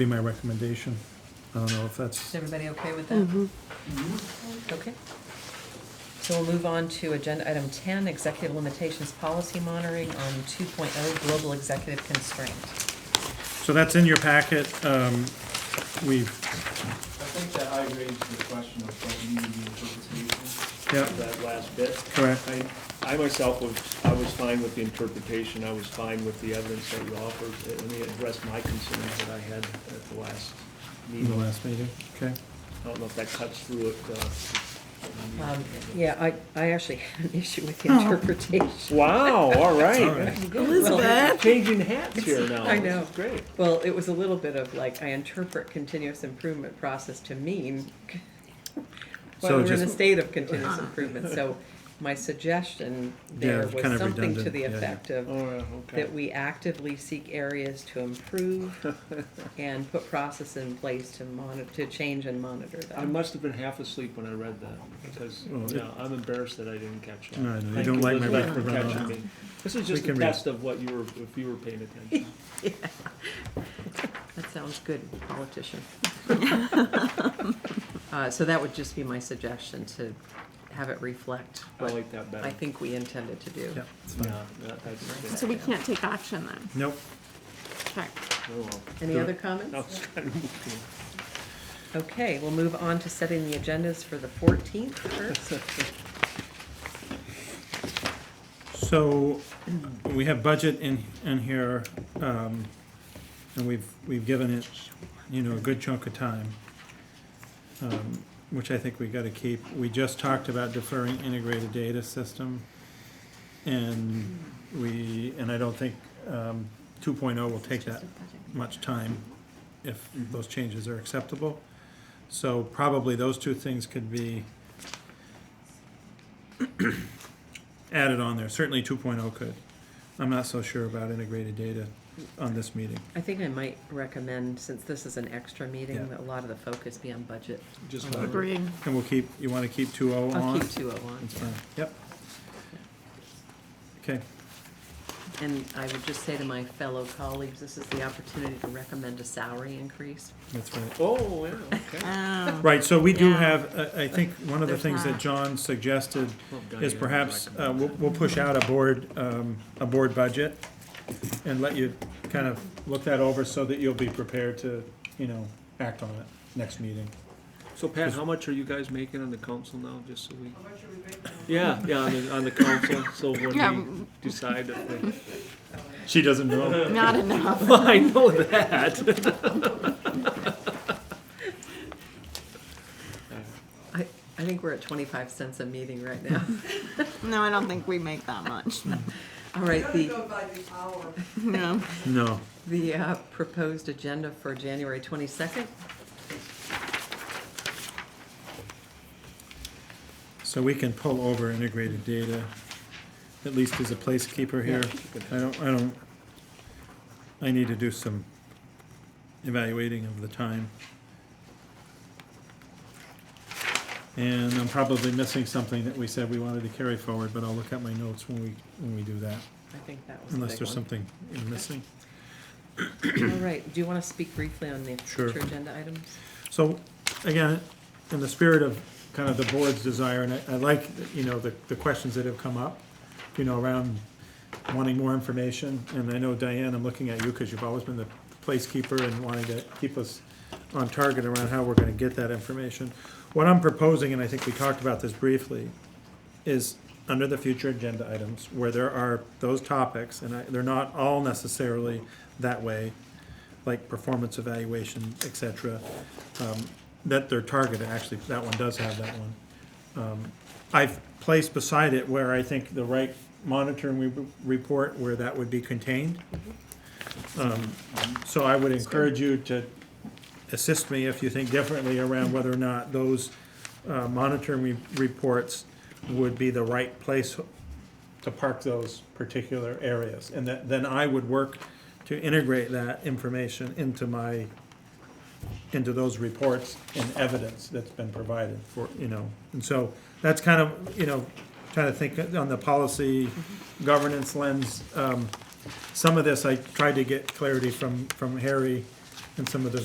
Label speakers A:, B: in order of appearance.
A: Be my recommendation. I don't know if that's,
B: Is everybody okay with that?
C: Mm-hmm.
B: Okay. So we'll move on to agenda item 10, executive limitations policy monitoring on 2.0 global executive constraint.
A: so that's in your packet. Um, We've,
D: I think that I raised the question of what needed the interpretation.
A: yeah,
E: that last bit.
A: correct.
E: I, I myself was, I was fine with the interpretation, I was fine with the evidence that you offered, and it addressed my concerns that I had at the last
A: In the
E: meeting.
A: last meeting, okay.
E: I don't know if that cuts through it. uh,
B: Um, Yeah, I, I actually had an issue with the interpretation.
E: Wow, all
A: All right.
E: right.
B: Elizabeth.
E: Changing hats here now.
B: I
E: This
B: know.
E: is great.
B: Well, it was a little bit of like, I interpret continuous improvement process to mean,
A: So
B: well, we're in a
A: just-
B: state of continuous improvement, so my suggestion
A: Yeah,
B: there
A: kind
B: was
A: of
B: something to
A: redundant,
B: the
A: yeah, yeah.
B: effect of
E: All right, okay.
B: that we actively seek areas to improve and put process in place to monitor, to change and monitor
E: I
B: them.
E: must have been half asleep when I read that, because,
A: Well, it-
E: you know, I'm embarrassed that I didn't catch that.
A: Oh, No, no, you
E: Thank
A: don't like my
E: Elizabeth, for
A: recommend-
E: catching me. This is just
A: can
E: a
A: read.
E: test of what you were, if you were paying attention.
B: That sounds good, politician. Uh, so that would just be my suggestion, to have it reflect
E: I
B: what
E: like that better.
B: I think we intended to do.
A: Yeah, it's fine.
E: Yeah, that- that's-
C: So we can't take action then?
A: Nope.
C: Okay.
E: oh, well.
B: Any other comments?
E: That was kind of-
B: Okay, we'll move on to setting the agendas for the fourteenth first.
A: So we have budget in, in here, um, and we've, we've given it, you know, a good chunk of time, um, which I think we gotta keep. We just talked about deferring integrated data system. And we, and I don't think, um, two will take that much time if those changes are acceptable. So probably those two things could be added on there. Certainly two oh could. I'm not so sure about integrated data on this meeting.
B: I think I might recommend, since this is an extra meeting,
A: Yeah.
B: that a lot of the focus be on budget.
E: Just
B: Um,
E: wanted-
C: Agreed.
A: And we'll keep, you wanna keep two oh
B: I'll
A: on?
B: keep two oh one.
A: That's fine, yep. Okay,
B: And I would just say to my fellow colleagues, this is the opportunity to recommend a salary increase.
A: that's right.
E: Oh, yeah, okay.
C: Oh.
A: Right, so we do
C: Yeah.
A: have, uh, I think, one of the
C: There's
A: things that
C: not.
A: John suggested
E: Well, Diane
A: is
E: would
A: perhaps,
E: like to
A: uh,
E: do
A: we'll,
E: that.
A: we'll push out a board, um, a board budget and let you kind of look that over so that you'll be prepared to, you know, act on it next meeting.
E: So Pat, how much are you guys making on the council now, just so we? How much are we making? Yeah, yeah, on the, on the council, so
C: Yeah.
E: when we decide if we.
A: She doesn't know.
C: Not enough.
E: Well, I know that.
B: I, I think we're at twenty-five cents a meeting right now.
C: No, I don't think we make that much.
B: All right, the,
F: go by the hour.
C: No.
A: No.
B: the uh, proposed agenda for January twenty-second,
A: So we can pull over integrated data, at least as a placekeeper here. I don't, I don't, I need to do some evaluating of the time. And I'm probably missing something that we said we wanted to carry forward, but I'll look at my notes when we, when we do that,
B: I think that was the
A: unless
B: big
A: there's
B: one.
A: something I'm missing.
B: All right, do you want to speak briefly on the
A: Sure.
B: future agenda items?
A: So, again, in the spirit of kind of the board's desire, and I, I like, you know, the, the questions that have come up, you know, around wanting more information, and I know Diane, I'm looking at you, because you've always been the placekeeper and wanting to keep us on target around how we're gonna get that information. What I'm proposing, and I think we talked about this briefly, is under the future agenda items, where there are those topics, and I, they're not all necessarily that way, like performance evaluation, et cetera, um, that they're targeted, actually, that one does have that one. Um, I've placed beside it where I think the right monitoring re- report, where that would be contained. Um, So I would encourage you to assist me if you think differently around whether or not those uh, monitoring re- reports would be the right place to park those particular areas. And that, then I would work to integrate that information into my, into those reports and evidence that's been provided for, you know. And so that's kind of, you know, trying to think on the policy governance lens. Um, Some of this I tried to get clarity from, from Harry and some of the